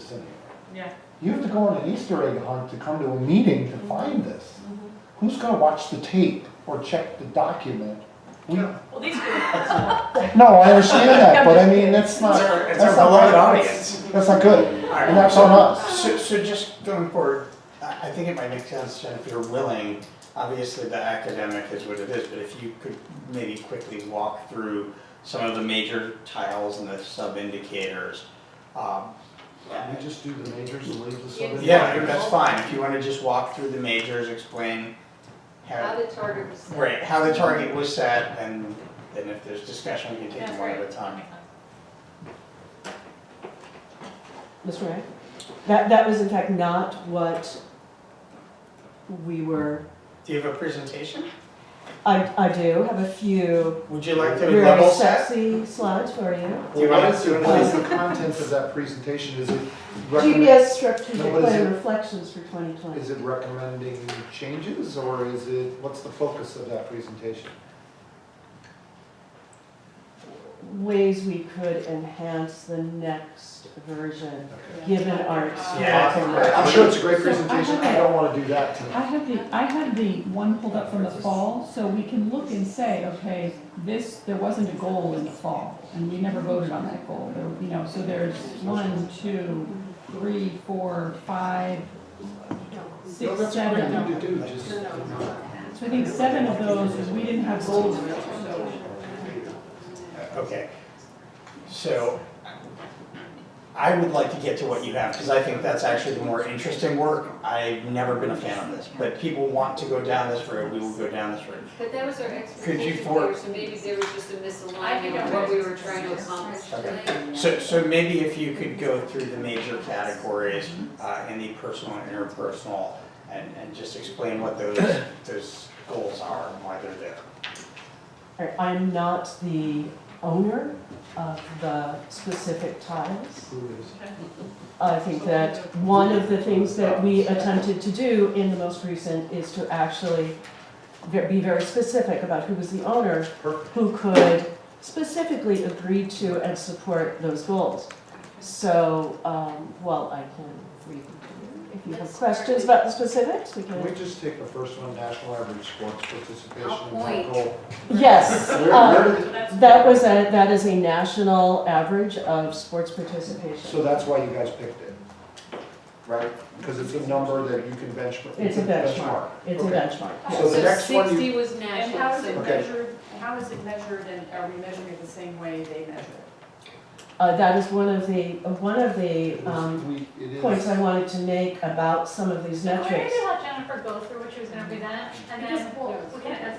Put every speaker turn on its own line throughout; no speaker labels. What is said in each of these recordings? city.
Yeah.
You have to go on an Easter egg hunt to come to a meeting
Mm-hmm.
to find this. Who's gonna watch the tape or check the document? We, no,
Well, these are.
I understand that, but I mean, that's not,
It's our, it's our
that's not
beloved
right.
audience.
That's not good,
All right.
and that's on us.
So, so just going forward, I, I think it might make sense, Jen, if you're willing, obviously the academic is what it is, but if you could maybe quickly walk through some of the major tiles and the sub-indicators. Um,
Can we just do the majors and leave the sub?
Yeah, that's fine, if you wanna just walk through the majors, explain
How
how,
the target was set.
right, how the target was set, and then if there's discussion, we can take them one at a time.
Ms. Ray? That, that was in fact not what we were,
Do you have a presentation?
I, I do have a few
Would you like to
very
level set?
sexy slides for you.
Do you
Well,
want
What is,
to-
what is the content of that presentation? Is it recommend,
GPS strategic
No, what is
plan
it?
reflections for twenty twenty.
is it recommending changes or is it, what's the focus of that presentation?
Ways we could enhance the next version, given our
Yeah, I
experience.
think we're-
I'm sure it's a great
So, I
presentation, I
have-
don't wanna do that
I
tonight.
have the, I have the one pulled up from the fall, so we can look and say, okay, this, there wasn't a goal in the fall, and we never voted on that goal, There- you know, so there's one, two, three, four, five,
No,
six,
that's a great
seven.
thing to do, just,
So I think seven of those, we didn't have goals.
Okay, so I would like to get to what you have, because I think that's actually the more interesting work. I've never been a fan of this, but people want to go down this road, we will go down this road.
But that was our expectation
for-
there, so maybe there was just a
I think
misalignment
it
on what we
was.
were trying to accomplish
Okay.
tonight.
So, so maybe if you could go through the major categories, uh, in the personal and interpersonal, and, and just explain what those, those goals are and why they're there.
Alright, I'm not the owner of the specific tiles.
who is-
I think that one of the things that we attempted to do in the most recent is to actually ve- be very specific about who was the owner, who could specifically agree to and support those goals. So, um, well, I can read them to you. if you have
Let's
questions
start
about the specifics, we
Can we
can.
just take the first one, national average sports participation?
I'll
in that
point. Oh.
goal?
Yes,
Where-
um,
where did-
that was a, that is a national average of sports participation.
So that's why you guys picked it, right? Because it's a number that you can benchmark.
It's a benchmark, it's a
Okay.
benchmark, yes.
So the next one you-
sixty was
And how is
national,
it
so
Okay.
measured, how is it measured and are we measuring it the same way they measure it?
Uh, that is one of the, uh, one of the,
It was-
um,
we- it is-
points I wanted to make about some of these
So We're
metrics.
gonna let Jennifer go through what she was gonna present, and then we'll, we can address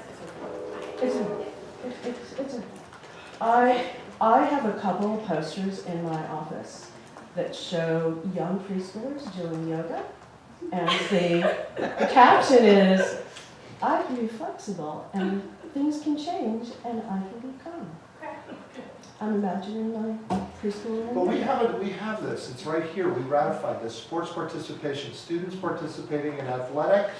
It's a, it's, it's a, I, I have a couple posters in my office that show young preschoolers doing yoga. And the the caption is, I can be flexible and things can change and I can become. I'm imagining my preschooler.
Well, we have it, we have this, it's right here, we ratified this, sports participation, students participating in athletics,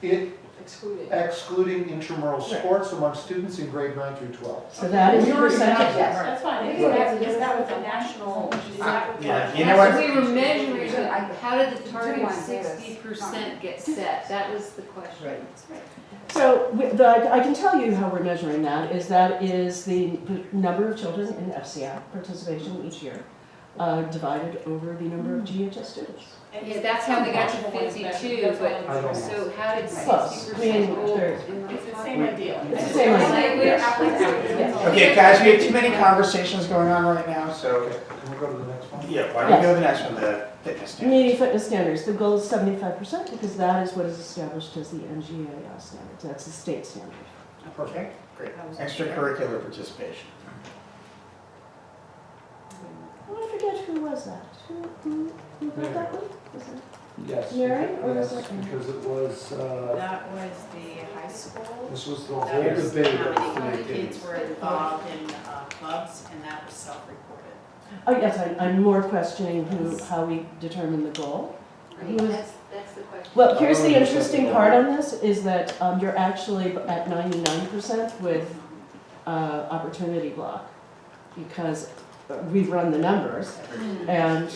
it
Excluded.
excluding intramural
Right.
sports among students in grade nine through twelve.
So that is
We
the
already have
percentage,
that.
yes.
That's fine,
Is
Right.
that, is that what the national, is that what? the-
Yeah, you know what?
we were measuring, it. how did the target of sixty percent get set? That was the question.
So we- the, I can tell you how we're measuring that, is that is the p- number of children in FCI participation each year, uh, divided over the number of GHS students.
Yeah, that's how we got to fifty-two,
I
but,
don't-
so how did
Close.
sixty
We
percent
ain't
roll?
there.
in the
It's the
target?
same idea.
It's the same idea.
Like, we're apples to apples.
Yes.
Okay, guys, we have too many conversations going on right now, so,
Okay, can we go to the next one?
yeah, why don't we go to the next one, the fitness standards?
Community fitness standards, the goal is seventy-five percent because that is what is established as the NGAL standard, that's the state standard.
Perfect, great. Extracurricular participation.
I forget who was that, who, who, who got that one? Was it-
Yes.
Mary, or is
Yes,
it-
because it was, uh,
That was the high school.
this was the
That
whole
was
debate
how
of
many- How many
the
kids
games.
were involved in uh, clubs and that was self-reported.
Oh, yes, I, I'm more questioning who, how we determine the goal.
Right, that's, that's the question.
Well, here's the
Oh, that's
interesting
right.
part on this, is that um, you're actually at ninety-nine percent with uh, opportunity block, because we run the numbers, and